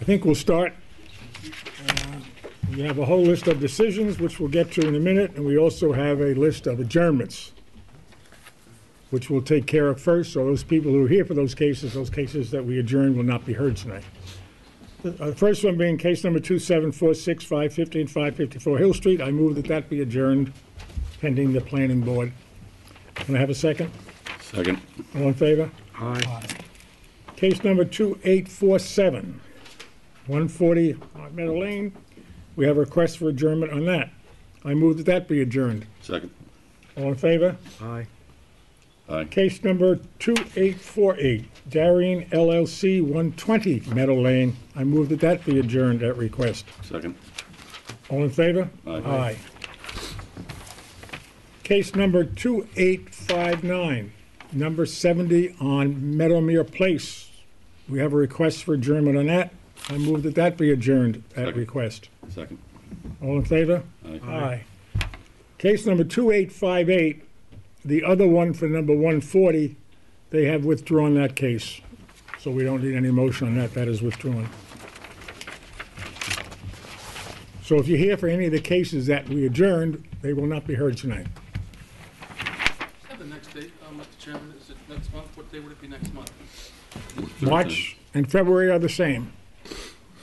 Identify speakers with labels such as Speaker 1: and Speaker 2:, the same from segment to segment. Speaker 1: I think we'll start. Uh, We have a whole list of decisions, which we'll get to in a minute, and we also have a list of adjournments, which we'll take care of first, so those people who are here for those cases, those cases that we adjourn will not be heard tonight. The uh, first one being case number 2746, 550 and 554 Hill Street. I move that that be adjourned pending the planning board. Can I have a second?
Speaker 2: Second.
Speaker 1: All in favor?
Speaker 2: Aye.
Speaker 1: Case number 2847, 140 Hot Meadow Lane. We have a request for adjournment on that. I move that that be adjourned.
Speaker 2: Second.
Speaker 1: All in favor?
Speaker 3: Aye.
Speaker 2: Aye.
Speaker 1: Case number 2848, Darien LLC, 120 Meadow Lane. I move that that be adjourned at request.
Speaker 2: Second.
Speaker 1: All in favor?
Speaker 2: Aye.
Speaker 1: Case number 2859, number 70 on Meadowmere Place. We have a request for adjournment on that. I move that that be adjourned at
Speaker 2: Second.
Speaker 1: request.
Speaker 2: Second.
Speaker 1: All in favor?
Speaker 2: Aye.
Speaker 1: Aye. Case number 2858, the other one for number 140, they have withdrawn that case. So we don't need any motion on that, that is withdrawn. So if you're here for any of the cases that we adjourned, they will not be heard tonight.
Speaker 4: Yeah, the next date, uh, Mr. Chairman, is it next month? What day would it be next month?
Speaker 1: March and February are the same,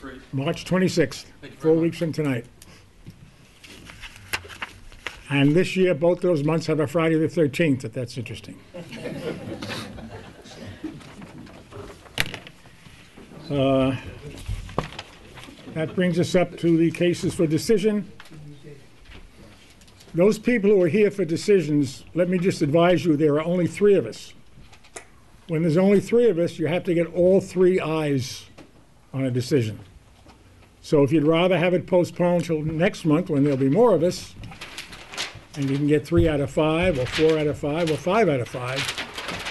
Speaker 4: Great,
Speaker 1: March 26th,
Speaker 4: Thank you very
Speaker 1: four
Speaker 4: much.
Speaker 1: weeks from tonight. And this year, both those months have a Friday the 13th, if that's interesting. Uh, That brings us up to the cases for decision. Those people who are here for decisions, let me just advise you, there are only three of us. When there's only three of us, you have to get all three ayes on a decision. So if you'd rather have it postponed till next month, when there'll be more of us, and you can get three out of five, or four out of five, or five out of five,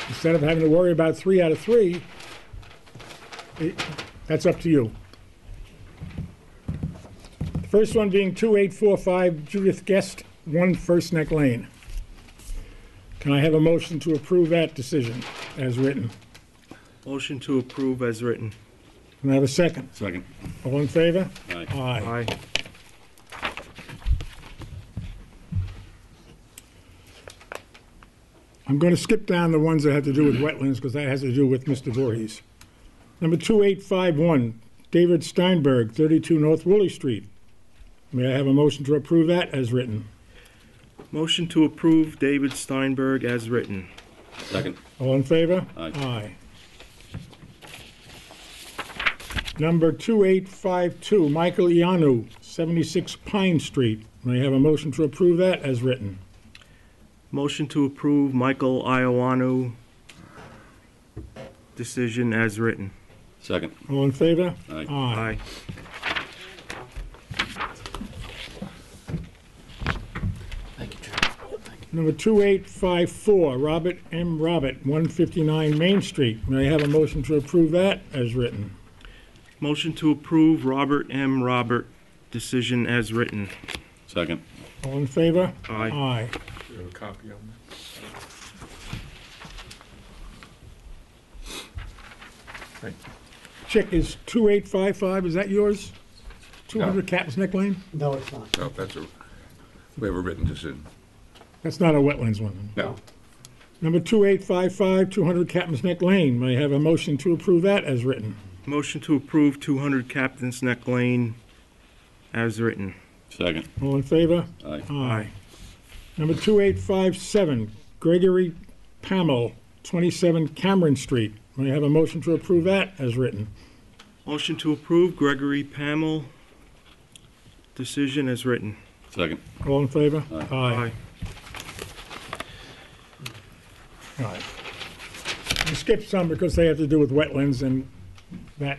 Speaker 1: instead of having to worry about three out of three, it- that's up to you. The First one being 2845 Judith Guest, 1 First Neck Lane. Can I have a motion to approve that decision as written?
Speaker 3: Motion to approve as written.
Speaker 1: Can I have a second?
Speaker 2: Second.
Speaker 1: All in favor?
Speaker 2: Aye.
Speaker 3: Aye.
Speaker 1: I'm going to skip down the ones that have to do with wetlands, because that has to do with Mr. Voorhees. Number 2851, David Steinberg, 32 North Woolley Street. May I have a motion to approve that as written?
Speaker 3: Motion to approve David Steinberg as written.
Speaker 2: Second.
Speaker 1: All in favor?
Speaker 2: Aye.
Speaker 1: Aye. Number 2852, Michael Ianu, 76 Pine Street. May I have a motion to approve that as written?
Speaker 3: Motion to approve Michael Iowano decision as written.
Speaker 2: Second.
Speaker 1: All in favor?
Speaker 2: Aye.
Speaker 1: Aye.
Speaker 3: Aye.
Speaker 4: thank you, Chair.
Speaker 1: Number 2854, Robert M. Robert, 159 Main Street. May I have a motion to approve that as written?
Speaker 3: Motion to approve Robert M. Robert decision as written.
Speaker 2: Second.
Speaker 1: All in favor?
Speaker 3: Aye.
Speaker 1: Aye.
Speaker 4: Do you have a copy on that?
Speaker 1: Chick, is 2855, is that yours? 200 Captain's Neck Lane?
Speaker 5: No, it's not.
Speaker 6: No, that's a, we have a written decision.
Speaker 1: That's not a wetlands one.
Speaker 6: No,
Speaker 1: Number 2855, 200 Captain's Neck Lane. May I have a motion to approve that as written?
Speaker 3: Motion to approve 200 Captain's Neck Lane as written.
Speaker 2: Second.
Speaker 1: All in favor?
Speaker 2: Aye.
Speaker 3: Aye.
Speaker 1: Number 2857, Gregory Pamel, 27 Cameron Street. May I have a motion to approve that as written?
Speaker 3: Motion to approve Gregory Pamel decision as written.
Speaker 2: Second.
Speaker 1: All in favor?
Speaker 3: Aye.
Speaker 1: All right. We skipped some because they have to do with wetlands and that